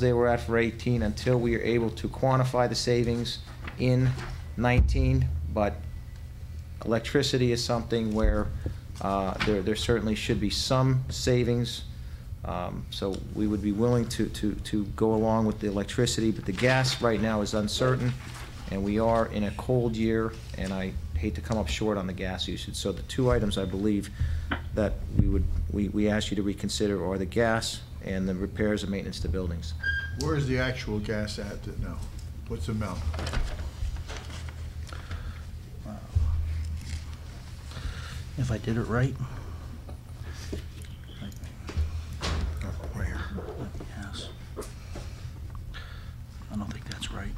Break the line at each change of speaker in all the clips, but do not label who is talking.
they were at for 18 until we are able to quantify the savings in 19. But electricity is something where uh, there there certainly should be some savings. Um, So we would be willing to to to go along with the electricity, but the gas right now is uncertain, and we are in a cold year, and I hate to come up short on the gas usage. So the two items, I believe, that we would, we we ask you to reconsider are the gas and the repairs and maintenance to buildings.
Where is the actual gas at that now? What's the amount?
if I did it right.
Oh, Where?
Yes. I don't think that's right.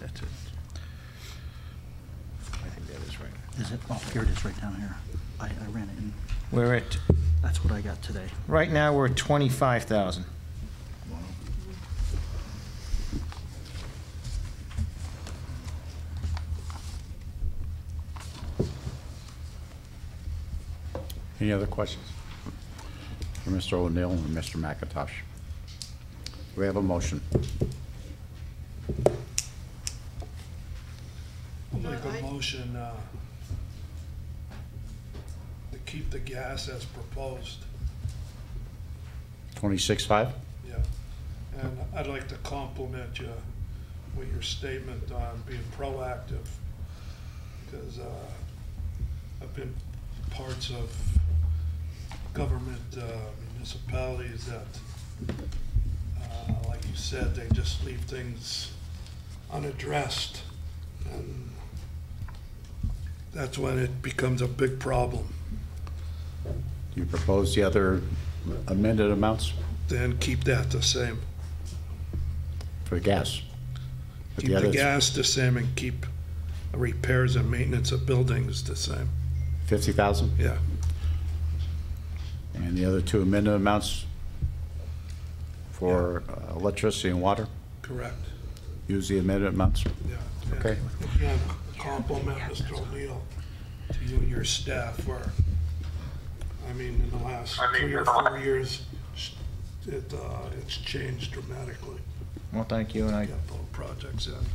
That's it. I think that is right.
Is it, oh, here it is, right down here. I, I ran it, and
We're at,
that's what I got today.
right now, we're at 25,000.
Wow.
Any other questions? For Mr. O'Neill and Mr. McIntosh. We have a motion.
I'll make a motion uh, to keep the gas as proposed,
Twenty-six-five?
yeah. And I'd like to compliment you with your statement on being proactive, because I've been parts of government uh, municipalities that, uh, like you said, they just leave things unaddressed. And that's when it becomes a big problem.
You propose the other amended amounts
Then keep that the same.
for gas? But
Keep the
others,
gas the same and keep repairs and maintenance of buildings the same.
Fifty thousand?
Yeah.
And the other two amended amounts for uh, electricity and water?
Correct.
Use the amended amounts?
Yeah. And
Okay.
Again, compliment Mr. O'Neill to you and your staff for, I mean, in the last three or four years, it, uh, it's changed dramatically,
Well, thank you, and I
yeah, both projects, and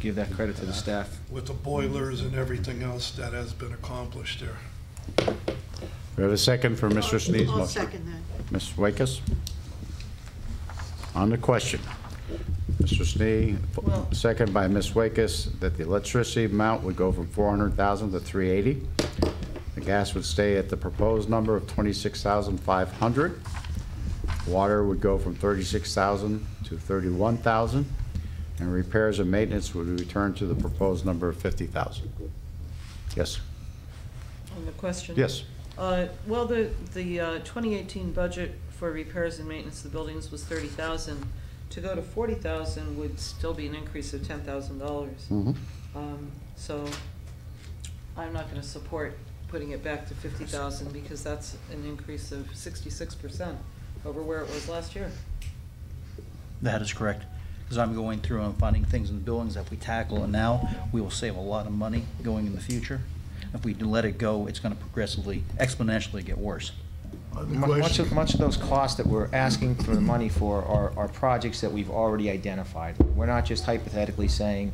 give that credit to the staff.
with the boilers and everything else that has been accomplished there.
We have a second for Mr. Sneed's motion.
I'll second that.
Ms. Wakus? On the question, Mr. Snee, second by Ms. Wakus, that the electricity amount would go from 400,000 to 380. The gas would stay at the proposed number of 26,500. Water would go from 36,000 to 31,000. And repairs and maintenance would return to the proposed number of 50,000. Yes?
On the question?
Yes.
Uh, Well, the, the uh, 2018 budget for repairs and maintenance of the buildings was 30,000. To go to 40,000 would still be an increase of $10,000.
Mhm.
Um, So I'm not going to support putting it back to 50,000 because that's an increase of 66% over where it was last year.
That is correct, because I'm going through and finding things in the buildings that we tackle, and now we will save a lot of money going in the future. If we do let it go, it's gonna progressively, exponentially get worse.
Other
Mu- Much of,
question?
much of those costs that we're asking for the money for are, are projects that we've already identified. We're not just hypothetically saying,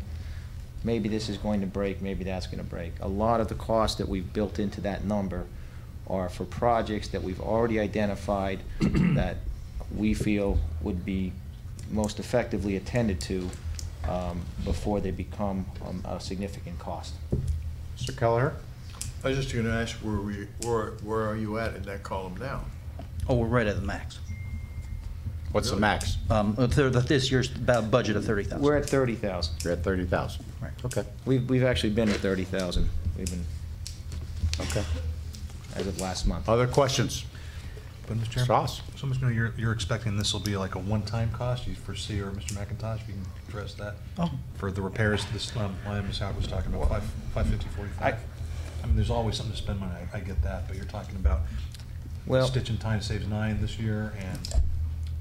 maybe this is going to break, maybe that's gonna break. A lot of the costs that we've built into that number are for projects that we've already identified that we feel would be most effectively attended to, um, before they become, um, a significant cost.
Mr. Kelleher?
I was just gonna ask, where we, where, where are you at in that column now?
Oh, we're right at the max.
What's the
Really?
max?
Um, uh, thir- this year's bu- budget of thirty
We're
thousand.
at thirty thousand.
You're at 30,000.
Right.
Okay,
We've, we've actually been at thirty thousand. We've been
okay.
as of last month.
Other questions?
But Mr.
Mr.
Chairman,
Haas?
so Mr. Mayor, you're, you're expecting this will be like a one-time cost, you foresee, or Mr. McIntosh, if you can address that?
Oh.
For the repairs to this, um, line Ms. Howard was talking about, five, five fifty, forty-five.
I-
I mean, there's always something to spend money, I, I get that, but you're talking about
Well-
stitch and tie saves nine this year, and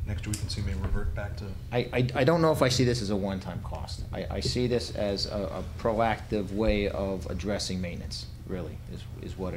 next year we can see maybe revert back to,
I, I, I don't know if I see this as a one-time cost. I, I see this as a, a proactive way of addressing maintenance, really, is, is what